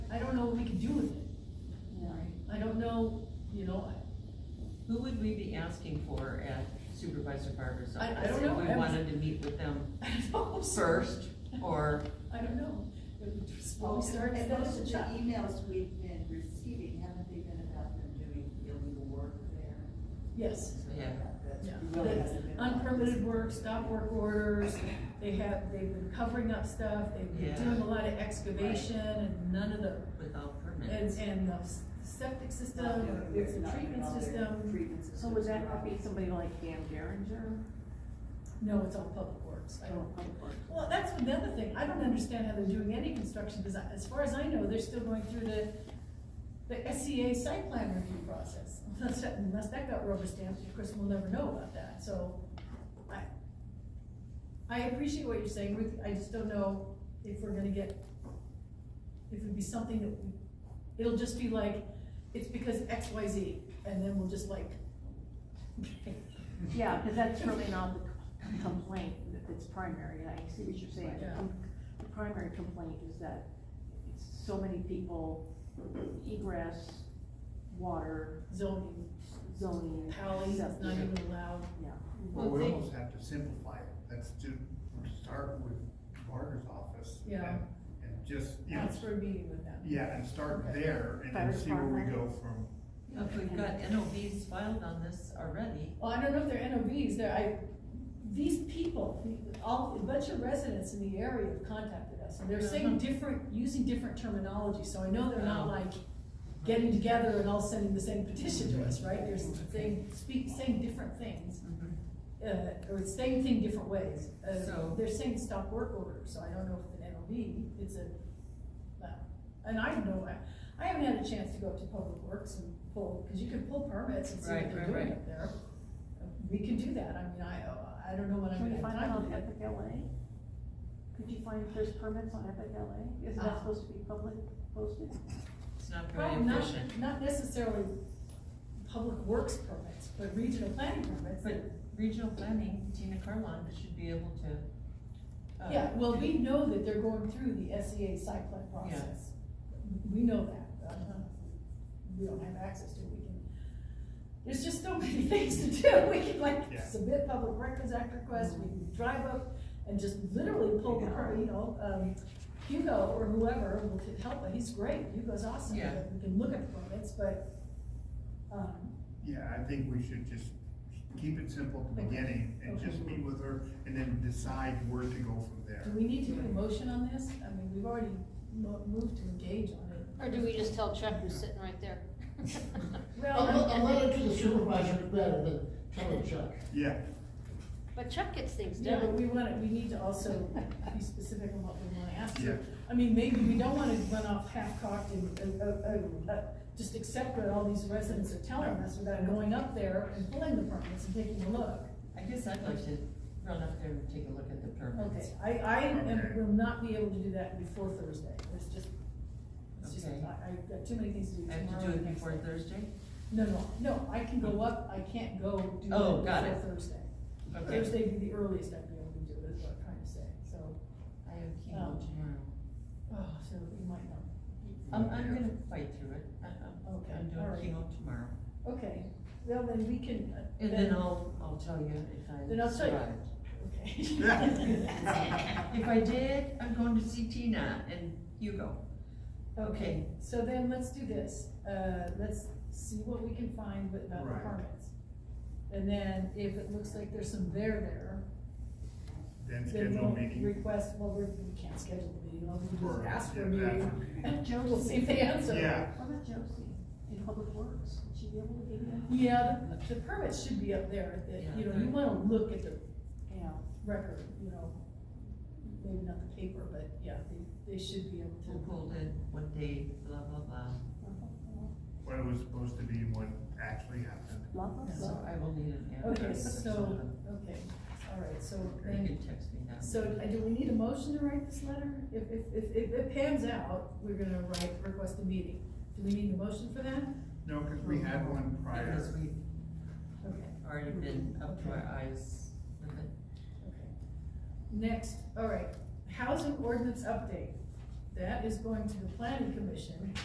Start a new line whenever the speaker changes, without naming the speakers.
what we can do with it. I don't know, you know, I-
Who would we be asking for at Supervisor Barber's
I- I
office?
don't know.
If
I
we
was-
wanted to meet with them
I don't know.
first, or,
I don't know. It's where we
Well,
start,
Oh, And
it's
those
where
are
we
the
stop.
emails we've been receiving, haven't they been about them doing illegal work there? e-
Yes,
Yeah.
That's
yeah.
really hasn't been.
Unpermitted work, stop work orders, they have, they've been covering up stuff, they've been
Yeah.
doing a lot of excavation and none of the,
without
and,
permits?
and the s- septic system,
Not doing
or
it,
the
not
treatment
doing all their
system.
treatment
So
systems
would that not be
around.
somebody like Dan Geringer?
No, it's all public works. I don't,
Well,
Well, that's another thing, I don't understand how they're doing any construction, because as far as I know, they're still going through the, the SCA site plan review process. Unless that, unless that got rubber stamped, of course, we'll never know about that, so, I, I appreciate what you're saying, Ruth, I just don't know if we're gonna get, if it'd be something that, we- it'll just be like, it's because X, Y, Z, and then we'll just like,
Yeah, because that's really not the com- complaint, that it's primary, and I see what you're saying. The
Yeah.
com- The primary complaint is that it's so many people, egress, water,
zoning,
zoning.
Pally,
stuff.
it's not even allowed.
Yeah,
Well,
Well,
we
they-
almost have to simplify it, let's do, start with Barter's office.
Yeah.
and- And just, you know,
That's for a meeting with them.
yeah, and start
Okay.
there and
Fire
then see where we go
department.
from.
If we've got NOVs filed on this already,
Well, I don't know if they're NOVs, they're, I, these people, the- all, a bunch of residents in the area have contacted us, and they're saying
Mhm.
different, using different terminology, so I know they're not
Oh.
like getting together and all sending the same petition to us, right? They're saying, speak, saying different things,
Mm-hmm.
uh, or same thing different ways. Uh,
So-
They're saying stop work order, so I don't know if it's an NOV, it's a, well, and I don't know, I, I haven't had a chance to go up to Public Works and pull, cause you can pull permits and see what
Right,
they're
right,
doing
right.
up there. We can do that, I mean, I, I don't know what I'm
can
gonna have
we find out
time to
on
do.
Epic LA? Could you find if there's permits on Epic LA? Isn't
Ah.
that supposed to be public posted?
it's not very
Probably not,
efficient.
not necessarily Public Works permits, but regional planning permits.
But regional planning, Tina Carlon should be able to. uh,
Yeah, well, we know that they're going through the SEA site plan process. We know that. uh, We don't have access to it, we can, there's just so many things to do. We can like
Yeah.
submit public records act requests, we can drive up and just literally pull the, per- you know, um, Hugo or whoever will t- help, he's great, Hugo's awesome.
Yeah.
We can look at the permits, but, um,
Yeah, I think we should just keep it simple at the beginning and
Okay.
just meet with her and then decide where to go from
do
there.
we need to do a motion on this? I mean, we've already mo- moved to engage on it.
Or do we just tell Chuck who's sitting right there?
A,
Well,
a a letter to the supervisor is better than telling Chuck.
Yeah,
But Chuck gets things
Yeah, but
done.
we want to, we need to also be specific on what we want to ask
Yeah.
you. I mean, maybe we don't want to run off half-cocked and, and, uh, uh, uh, just accept what all these residents are telling us without going up there and pulling the permits and taking a look.
I guess I'd like to run up there and take a look at the
Okay,
permits.
I, I am,
Okay.
will not be able to do that before Thursday, it's just, it's just,
Okay.
I, I've got too many things to do
I
tomorrow.
have to do
and
it
next
before
day.
Thursday?
No, no, no, I can go up, I can't go do
Oh,
that
got
before
it.
Thursday.
Okay.
Thursday would be the earliest I'd be able to do it, is what I'm trying to say, so,
I have chemo
Oh.
tomorrow.
oh, so we might not.
I'm, I'm gonna fight through it. I- I'm,
Okay,
I'm
all right.
doing chemo tomorrow.
Okay, well, then we can. uh,
And then I'll, I'll tell you if I survived.
Then I'll tell you. Okay.
If I did, I'm going to see Tina and Hugo.
Okay, so then let's do this, uh, let's see what we can find with about the
Right.
permits. And then if it looks like there's some there there,
then
then
schedule
we'll
a meeting.
request, well, we're- we can't schedule a meeting, all we can do is
Or-
ask for
yeah,
a
ask for a
meeting.
meeting.
Joe will see if they answer.
Yeah,
What about Josie in Public Works? Would she be able to give you?
Yeah, the the permits should be up there, that, you know, you
Yeah.
wanna look at the
Yeah.
record, you know, maybe not the paper, but yeah, they, they should be able
We'll
to.
hold it one day, blah, blah, blah.
what it was supposed to be and what actually happened.
Love us.
So I will need an answer.
Okay, so, okay, all right, so
You can
then,
text me that.
so uh, do we need a motion to write this letter? If, if, if, if it pans out, we're gonna write, request a meeting. Do we need a motion for that?
No, because
Oh.
we had one prior.
Because we've
Okay,
already been up to our eyes with it.
okay. Next, all right, housing ordinance update. That is going to the planning commission.